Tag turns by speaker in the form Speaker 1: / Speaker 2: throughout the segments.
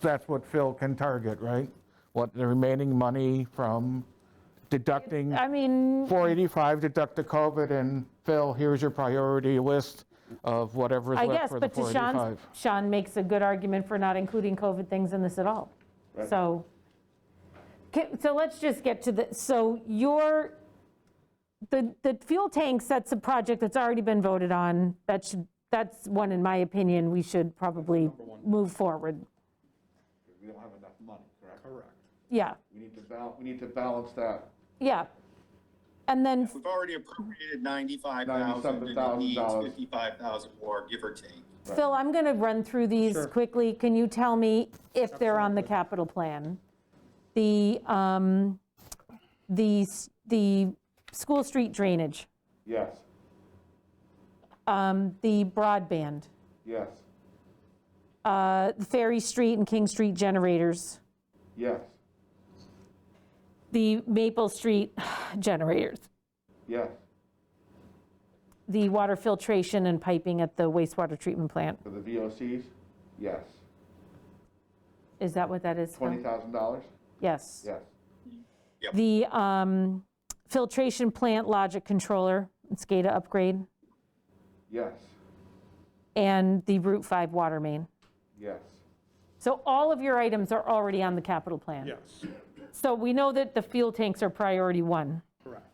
Speaker 1: that's what Phil can target, right? What the remaining money from deducting
Speaker 2: I mean,
Speaker 1: 485, deduct the COVID, and Phil, here's your priority list of whatever's
Speaker 2: I
Speaker 1: left
Speaker 2: guess,
Speaker 1: for the
Speaker 2: but to Sean's,
Speaker 1: 485.
Speaker 2: Sean makes a good argument for not including COVID things in this at all. So, Ca- so let's just get to the, so your, the, the fuel tank sets a project that's already been voted on. That should, that's one, in my opinion, we should probably move forward.
Speaker 3: We don't have enough money, correct? Correct.
Speaker 2: Yeah,
Speaker 3: We need to bal, we need to balance that
Speaker 2: yeah. And then,
Speaker 4: We've already appropriated ninety-five thousand, and it
Speaker 3: $97,000.
Speaker 4: needs fifty-five thousand more, give or take.
Speaker 2: Phil, I'm going to run through these quickly. Can you tell me if they're on the capital plan? The, um, the, s- the school street drainage,
Speaker 3: Yes,
Speaker 2: um, the broadband,
Speaker 3: yes,
Speaker 2: uh, the Ferry Street and King Street generators,
Speaker 3: yes,
Speaker 2: the Maple Street generators,
Speaker 3: yes,
Speaker 2: the water filtration and piping at the wastewater treatment plant.
Speaker 3: for the VOCs, yes.
Speaker 2: Is that what that is? Phil?
Speaker 3: Twenty thousand dollars,
Speaker 2: Yes.
Speaker 3: yes,
Speaker 2: The um, filtration plant logic controller, SCADA upgrade.
Speaker 3: yes,
Speaker 2: and the Route 5 water main.
Speaker 3: yes,
Speaker 2: So all of your items are already on the capital plan?
Speaker 5: Yes,
Speaker 2: So we know that the fuel tanks are priority one.
Speaker 5: correct.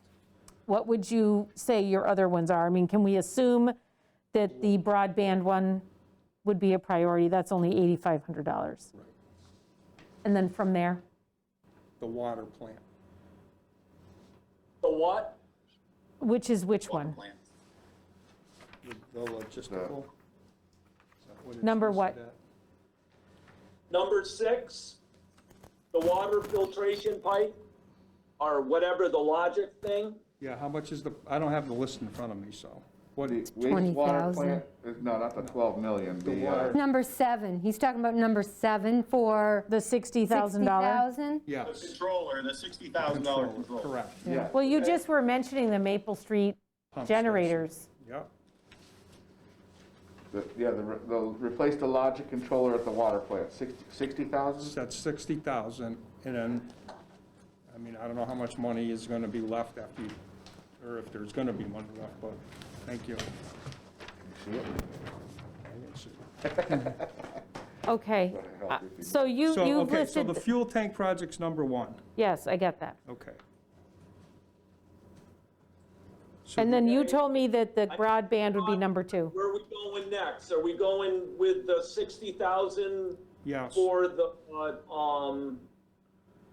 Speaker 2: What would you say your other ones are? I mean, can we assume that the broadband one would be a priority? That's only $8,500. And then from there?
Speaker 5: The water plant.
Speaker 6: The what?
Speaker 2: Which is which one?
Speaker 4: Plan.
Speaker 5: The- The logistical? Is that what it's
Speaker 2: Number
Speaker 5: listed
Speaker 2: what?
Speaker 5: at?
Speaker 6: Number six, the water filtration pipe, or whatever the logic thing.
Speaker 5: Yeah, how much is the, I don't have the list in front of me, so. What,
Speaker 3: The
Speaker 5: is-
Speaker 3: wastewater
Speaker 7: 20,000.
Speaker 3: plant, is- no, not the twelve million, the, uh,
Speaker 5: water-
Speaker 7: Number seven, he's talking about number seven for
Speaker 2: The $60,000?
Speaker 7: $60,000?
Speaker 4: The
Speaker 5: yes.
Speaker 4: controller, the sixty thousand dollar controller.
Speaker 5: controller, Correct.
Speaker 3: yes.
Speaker 2: Well, you just were mentioning the Maple Street
Speaker 5: Pump station.
Speaker 2: generators.
Speaker 5: Yep,
Speaker 3: The- Yeah, the, re- the, replace the logic controller at the water plant, sixty, sixty
Speaker 5: so
Speaker 3: thousand?
Speaker 5: that's 60,000, and then, I mean, I don't know how much money is going to be left after you, or if there's going to be money left, but, thank you. I didn't see it.
Speaker 2: Okay.
Speaker 3: help if you-
Speaker 2: So you,
Speaker 5: So,
Speaker 2: you've
Speaker 5: okay, so the
Speaker 2: listed,
Speaker 5: fuel tank project's number one,
Speaker 2: yes, I get that.
Speaker 5: okay. So
Speaker 2: And then you told me that the broadband would be number two.
Speaker 6: Where are we going next? Are we going with the sixty thousand
Speaker 5: Yes,
Speaker 6: for the, uh, um,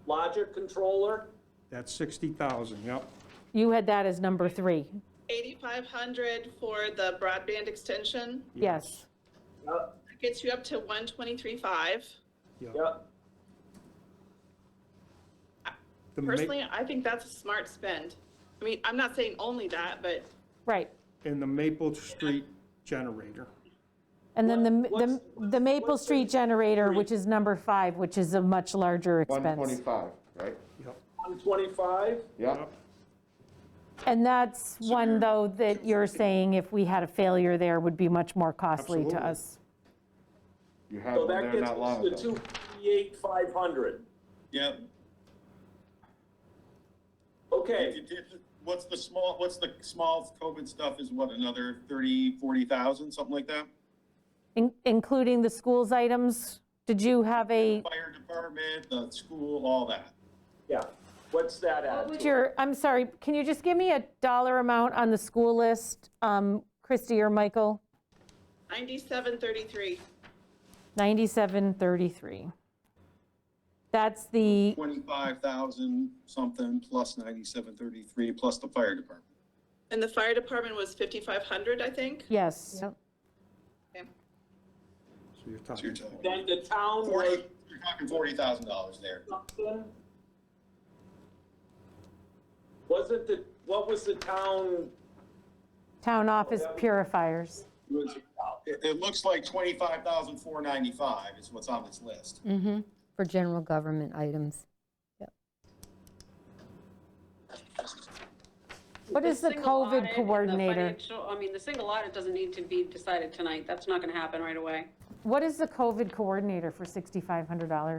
Speaker 6: logic controller?
Speaker 5: that's 60,000, yep.
Speaker 2: You had that as number three.
Speaker 8: 8,500 for the broadband extension.
Speaker 2: Yes.
Speaker 6: Yep,
Speaker 8: That gets you up to 123.5.
Speaker 6: yep.
Speaker 5: The ma-
Speaker 8: Personally, I think that's a smart spend. I mean, I'm not saying only that, but
Speaker 2: Right.
Speaker 5: And the Maple Street generator.
Speaker 2: And then the,
Speaker 6: What-
Speaker 2: the
Speaker 6: what's-
Speaker 2: the Maple
Speaker 6: what's the
Speaker 2: Street generator, which is number five, which is a much larger
Speaker 3: One
Speaker 2: expense.
Speaker 3: twenty-five, right?
Speaker 5: Yep,
Speaker 6: One twenty-five?
Speaker 3: Yeah,
Speaker 5: yep,
Speaker 2: And that's one, though, that you're saying if we had a failure there would be much more costly to
Speaker 5: Absolutely.
Speaker 2: us.
Speaker 3: you had
Speaker 6: So
Speaker 3: one
Speaker 6: that
Speaker 3: there
Speaker 6: gets
Speaker 3: not long
Speaker 6: us to
Speaker 3: ago.
Speaker 6: two fifty-eight, five hundred.
Speaker 4: Yep. If
Speaker 6: Okay,
Speaker 4: you did- What's the small, what's the small COVID stuff is what, another thirty, forty thousand, something like that?
Speaker 2: In- Including the schools items, did you have a,
Speaker 4: Fire department, the school, all that.
Speaker 6: yeah. What's that at?
Speaker 2: what was your, I'm sorry, can you just give me a dollar amount on the school list, um, Christie or Michael?
Speaker 8: 9733.
Speaker 2: 9733. That's the,
Speaker 4: Twenty-five thousand something plus ninety-seven thirty-three plus the fire department.
Speaker 8: And the fire department was 5,500, I think.
Speaker 2: yes,
Speaker 7: Yep.
Speaker 8: Okay.
Speaker 5: so you're
Speaker 4: So you're
Speaker 5: talking,
Speaker 4: talking
Speaker 6: Then the town was
Speaker 4: forty, you're talking forty thousand dollars there.
Speaker 6: something? Wasn't the, what was the town?
Speaker 2: town office purifiers.
Speaker 4: It was- It, it looks like twenty-five thousand four ninety-five is what's on this list.
Speaker 7: For general government items.
Speaker 2: What is the
Speaker 9: single audit and
Speaker 2: COVID
Speaker 9: the
Speaker 2: coordinator?
Speaker 9: financial- I mean, the single audit doesn't need to be decided tonight. That's not going to happen right away.
Speaker 2: what is the COVID coordinator for $6,500?